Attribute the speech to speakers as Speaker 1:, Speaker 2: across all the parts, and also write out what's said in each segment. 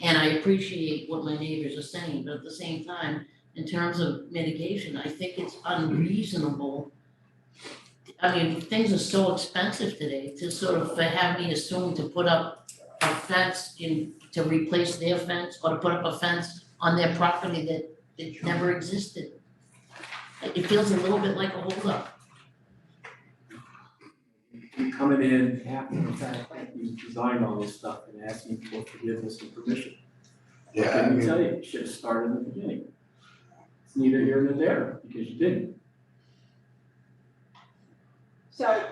Speaker 1: And I appreciate what my neighbors are saying, but at the same time, in terms of mitigation, I think it's unreasonable. I mean, things are so expensive today to sort of have me assume to put up a fence in, to replace their fence or to put up a fence on their property that, that never existed. It feels a little bit like a holdup.
Speaker 2: you coming in after the fact that you designed all this stuff and asking for forgiveness and permission. I
Speaker 3: Yeah, I
Speaker 2: can
Speaker 3: mean,
Speaker 2: tell you, you should have started in the beginning. It's neither here nor there, because you didn't.
Speaker 4: So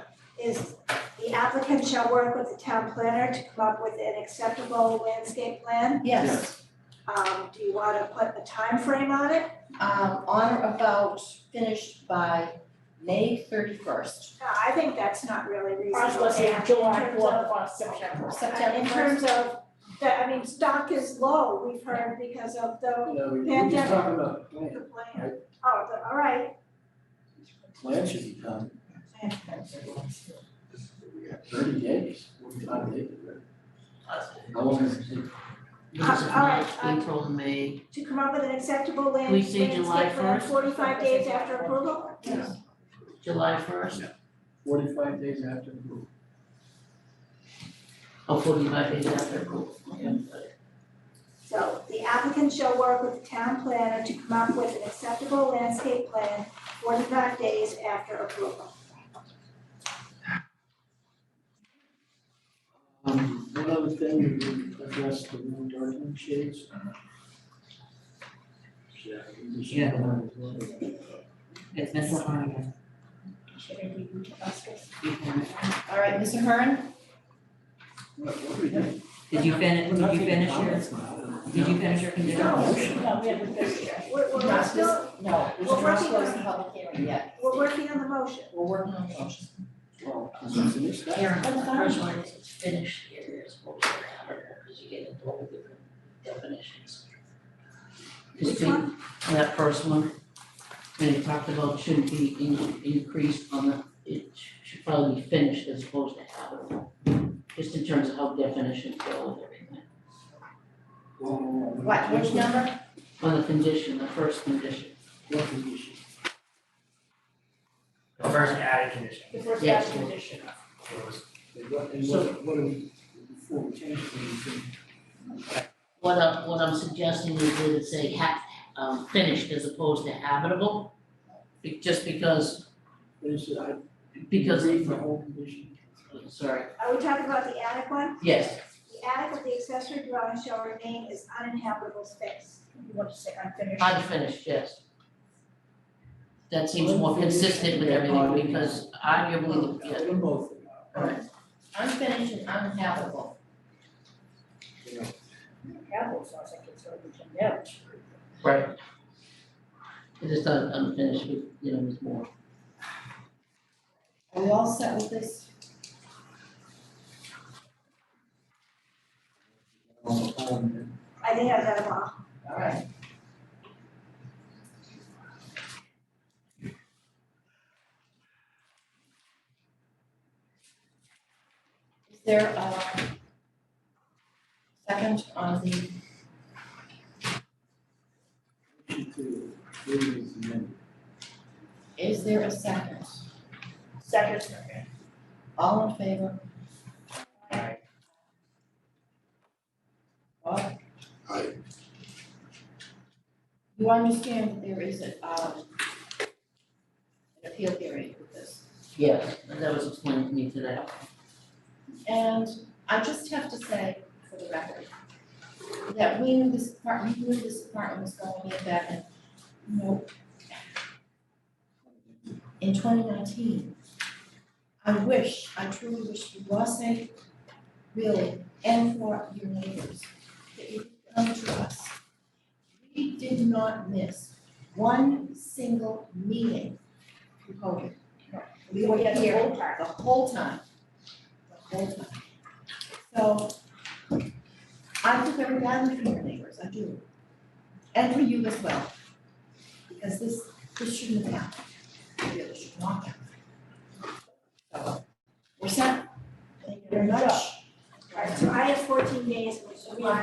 Speaker 4: is the applicant shall work with the town planner to come up with an acceptable landscape plan?
Speaker 5: Yes,
Speaker 4: Um, do you wanna put a time frame on it?
Speaker 5: um, on or about finished by May thirty-first.
Speaker 4: No, Uh, I think that's not really reasonable.
Speaker 6: I was saying
Speaker 4: In
Speaker 6: July
Speaker 4: terms
Speaker 6: fourth
Speaker 4: of- uh,
Speaker 6: or September.
Speaker 5: September
Speaker 4: In terms of, that, I mean, stock is low, we've heard because of the,
Speaker 2: You know, we- we're just talking about the plan.
Speaker 4: the plan. Oh, the, all right,
Speaker 2: Plan should be done
Speaker 3: yeah.
Speaker 2: thirty days, forty-five days. How long is it?
Speaker 1: Because of
Speaker 4: Uh, all right,
Speaker 1: March,
Speaker 4: um,
Speaker 1: April, May,
Speaker 4: to come up with an acceptable land,
Speaker 1: We say
Speaker 4: landscape
Speaker 1: July
Speaker 4: plan
Speaker 1: 1st?
Speaker 4: forty-five days after approval?
Speaker 2: Yeah,
Speaker 1: July first,
Speaker 2: forty-five days after approval.
Speaker 1: or forty-five days after approval. Okay.
Speaker 4: So the applicant shall work with the town planner to come up with an acceptable landscape plan forty-five days after approval.
Speaker 2: Um, one other thing, you addressed the room darkening shades.
Speaker 3: Uh-huh.
Speaker 2: Yeah. we should
Speaker 7: Yeah.
Speaker 2: have that as well.
Speaker 7: It's Miss Lahana.
Speaker 5: All right, Mr. Hearn,
Speaker 2: What, what are we doing?
Speaker 7: Did you finish,
Speaker 2: We're
Speaker 7: did
Speaker 2: not
Speaker 7: you
Speaker 2: taking
Speaker 7: finish your,
Speaker 2: comments now.
Speaker 7: did you finish your conditions?
Speaker 2: No.
Speaker 6: No, we haven't finished yet.
Speaker 4: We're, we're
Speaker 5: not this,
Speaker 4: still,
Speaker 5: no, we
Speaker 4: We're
Speaker 5: should not
Speaker 4: working
Speaker 5: close
Speaker 4: on-
Speaker 5: the public hearing yet.
Speaker 4: we're working on the motion.
Speaker 5: We're working on the motion.
Speaker 2: Well, can you finish that?
Speaker 1: Karen,
Speaker 5: That's fine.
Speaker 1: personally, it's finished here, it's supposed to matter, because you get into all the different definitions. It's
Speaker 4: Which
Speaker 1: been-
Speaker 4: one?
Speaker 1: that first one, and it talked about shouldn't be in- increased on the, it should probably be finished as opposed to habitable. Just in terms of how definitions go with everything,
Speaker 2: Whoa, whoa, whoa.
Speaker 5: What, which number?
Speaker 1: on the condition, the first condition.
Speaker 2: What condition?
Speaker 8: The first added condition,
Speaker 6: The first
Speaker 1: Yes.
Speaker 6: action condition.
Speaker 8: it was
Speaker 2: And what, and what, what are we, before we change anything?
Speaker 1: What I'm, what I'm suggesting is that it say ha, um, finished as opposed to habitable, be- just because,
Speaker 2: Finish it, I.
Speaker 1: Because-
Speaker 2: Read the whole condition.
Speaker 1: sorry,
Speaker 4: Are we talking about the attic one?
Speaker 1: yes,
Speaker 4: The attic of the accessory dwelling shall remain as uninhabitable space.
Speaker 6: You want to say unfinished?
Speaker 1: Unfinished, yes. That seems more consistent with everything, because arguably,
Speaker 2: Yeah,
Speaker 1: yeah,
Speaker 2: they're both.
Speaker 1: Alright.
Speaker 5: Unfinished and uninhabitable.
Speaker 2: You know,
Speaker 6: Capital sounds like it's already condemned.
Speaker 1: right. It is not unfinished, we- you know, it's more.
Speaker 5: Are we all set with this?
Speaker 2: on the phone,
Speaker 4: I think I've got them all.
Speaker 5: All right. Is there a second on the,
Speaker 2: and to read it and then-
Speaker 5: is there a second?
Speaker 6: Second.
Speaker 5: All in favor?
Speaker 8: Aye.
Speaker 5: Bob,
Speaker 3: I,
Speaker 5: you understand that there is a, um, an appeal period with this?
Speaker 1: Yes, that was explained to me today.
Speaker 5: And I just have to say for the record that we knew this apartment, we knew this apartment was going in back in, you know, in twenty nineteen. I wish, I truly wish for your sake, really, and for your neighbors, that you would come to us. We did not miss one single meeting through COVID. We were
Speaker 6: had the
Speaker 5: here
Speaker 6: whole time.
Speaker 5: the whole time, the whole time. So I feel very badly for your neighbors, I do. And for you as well. Because this, this shouldn't have happened. It really should not happen. So, We're set. Thank you very much.
Speaker 4: All right, so I have fourteen days, which is why